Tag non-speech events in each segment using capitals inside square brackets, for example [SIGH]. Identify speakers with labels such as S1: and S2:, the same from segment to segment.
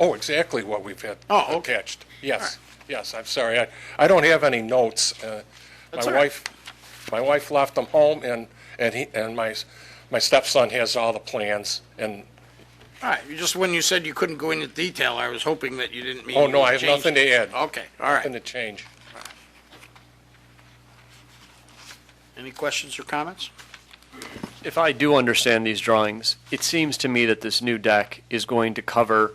S1: Oh, exactly what we've had
S2: Oh, okay.
S1: attached. Yes, yes, I'm sorry. I, I don't have any notes. Uh,
S2: That's
S1: My
S2: all right.
S1: wife, my wife left them home, and, and he, and my, s- my stepson has all the plans, and,
S2: All right, you just, when you said you couldn't go into detail, I was hoping that you didn't mean.
S1: oh, no,
S2: you
S1: I have
S2: changed
S1: nothing to add.
S2: it. Okay, all
S1: Nothing
S2: right.
S1: to change.
S2: Any questions or comments?
S3: If I do understand these drawings, it seems to me that this new deck is going to cover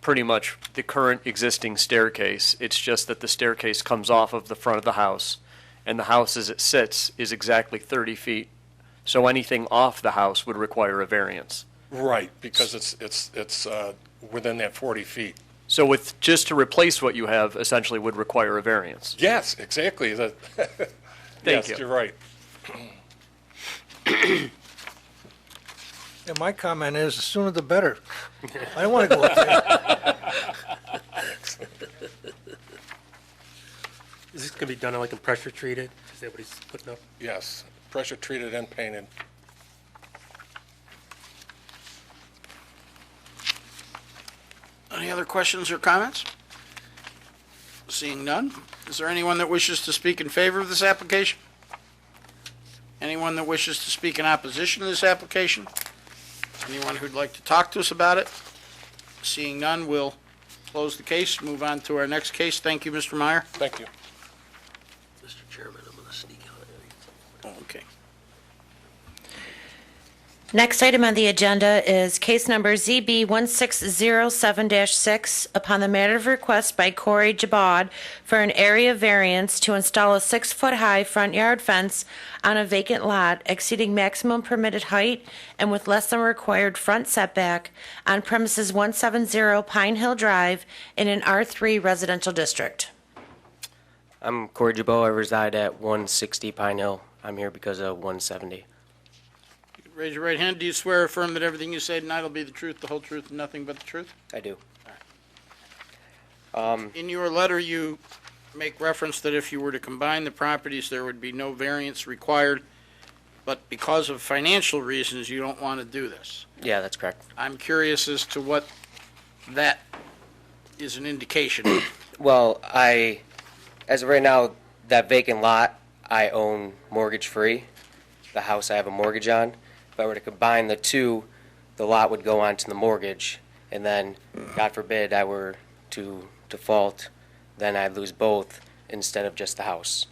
S3: pretty much the current existing staircase. It's just that the staircase comes off of the front of the house, and the house as it sits is exactly 30 feet. So anything off the house would require a variance.
S1: Right, because it's, it's, it's uh, within that 40 feet.
S3: So with, just to replace what you have essentially would require a variance.
S1: Yes, exactly. [LAUGHS] That, yes,
S3: Thank you.
S1: you're right.
S4: And my comment is, the sooner the better. I don't want to go up there.
S5: Is this gonna be done like and pressure treated? Is that what he's putting up?
S1: Yes, pressure treated and painted.
S2: [LAUGHS] Any other questions or comments? Seeing none, is there anyone that wishes to speak in favor of this application? Anyone that wishes to speak in opposition to this application? Anyone who'd like to talk to us about it? Seeing none, we'll close the case, move on to our next case. Thank you, Mr. Meyer.
S1: Thank you.
S5: Mr. Chairman, I'm gonna sneak out of there.
S2: Okay.
S6: Next item on the agenda is case number ZB 1607-6 upon the matter of request by Corey Jabod for an area variance to install a six-foot-high front yard fence on a vacant lot exceeding maximum permitted height and with less than required front setback on premises 170 Pine Hill Drive in an R3 residential district.
S7: I'm Corey Jabot. I reside at 160 Pine Hill. I'm here because of 170.
S2: Raise your right hand. Do you swear or affirm that everything you say tonight will be the truth, the whole truth, and nothing but the truth?
S7: I do.
S2: In your letter, you make reference that if you were to combine the properties, there would be no variance required, but because of financial reasons, you don't want to do this.
S7: Yeah, that's correct.
S2: I'm curious as to what that is an indication. of.
S7: Well, I, as of right now, that vacant lot I own mortgage free. The house I have a mortgage on. If I were to combine the two, the lot would go onto the mortgage, and then, God forbid, I were to default, then I'd lose both instead of just the house.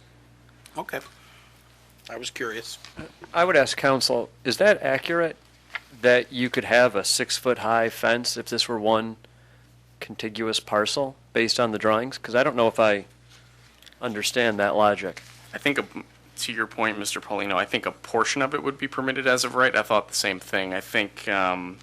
S2: Okay. I was curious.
S3: I would ask counsel, is that accurate, that you could have a six-foot-high fence if this were one contiguous parcel, based on the drawings? Because I don't know if I understand that logic.
S8: I think, a- to your point, Mr. Paulino, I think a portion of it would be permitted as of right. I thought the same thing. I think um,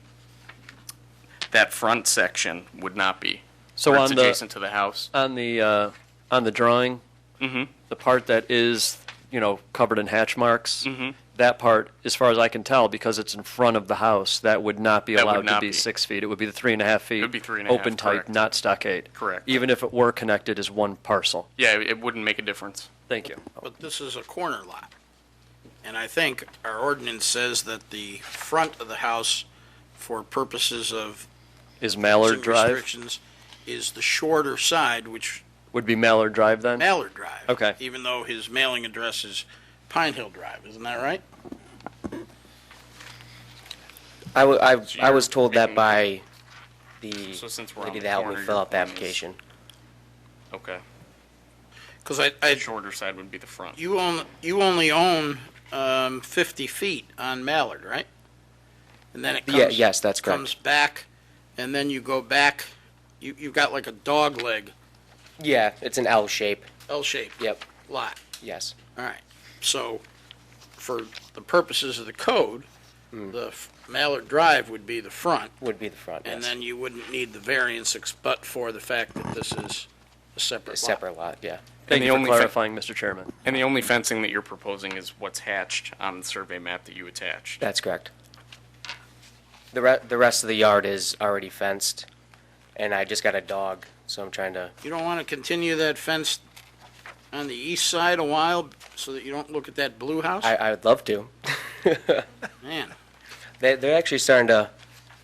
S8: that front section would not be.
S3: So
S8: Or
S3: on
S8: It's
S3: the,
S8: adjacent to the house.
S3: on the, uh, on the drawing,
S8: Mm-hmm.
S3: the part that is, you know, covered in hatch marks,
S8: Mm-hmm.
S3: that part, as far as I can tell, because it's in front of the house, that would not be
S8: That would
S3: allowed to
S8: not
S3: be
S8: be.
S3: six feet. It would be the three and a half feet.
S8: would be three and a half,
S3: Open type,
S8: correct.
S3: not stockade.
S8: Correct.
S3: Even if it were connected as one parcel.
S8: Yeah, it it wouldn't make a difference.
S3: Thank you.
S2: But this is a corner lot. And I think our ordinance says that the front of the house, for purposes of
S3: Is Mallard
S2: zoning
S3: Drive,
S2: restrictions, is the shorter side, which
S3: would be Mallard Drive then?
S2: Mallard Drive.
S3: Okay.
S2: Even though his mailing address is Pine Hill Drive, isn't that right?
S7: I, w- I,
S8: So
S7: I was
S8: you're
S7: told that
S8: making-
S7: by the
S8: So since we're on
S7: lady
S8: the
S7: that helped me
S8: corner, your
S7: fill out Mm. the
S8: point is-
S7: application.
S8: Okay.
S2: Because I, I,
S8: Shorter side would be the front.
S2: you own, you only own, um, fifty feet on Mallard, right? And then it
S7: Yeah,
S2: comes.
S7: yes, that's correct.
S2: Comes back, and then you go back, you, you've got like a dog leg,
S7: Yeah, it's an L shape.
S2: L-shaped
S7: Yep.
S2: lot.
S7: Yes.
S2: All right, so for the purposes of the code, the f- Mallard Drive would be the front.
S7: Hmm. Would be the front.
S2: And
S7: yes.
S2: then you wouldn't need the variance ex- but for the fact that this is a
S7: a
S2: separate lot.
S7: separate lot. Yeah.
S3: Thank
S8: the
S3: you for
S8: only fa-
S3: clarifying, Mr. Chairman.
S8: And the only fencing that you're proposing is what's hatched on the survey map that you attached.
S7: That's correct. The re- the rest of the yard is already fenced, and I just got a dog, so I'm trying to.
S2: You don't want to continue that fence on the east side a while so that you don't look at that blue house?
S7: I I would love to.
S2: Man,
S7: They they're actually starting to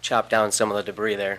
S7: chop down some of the debris there.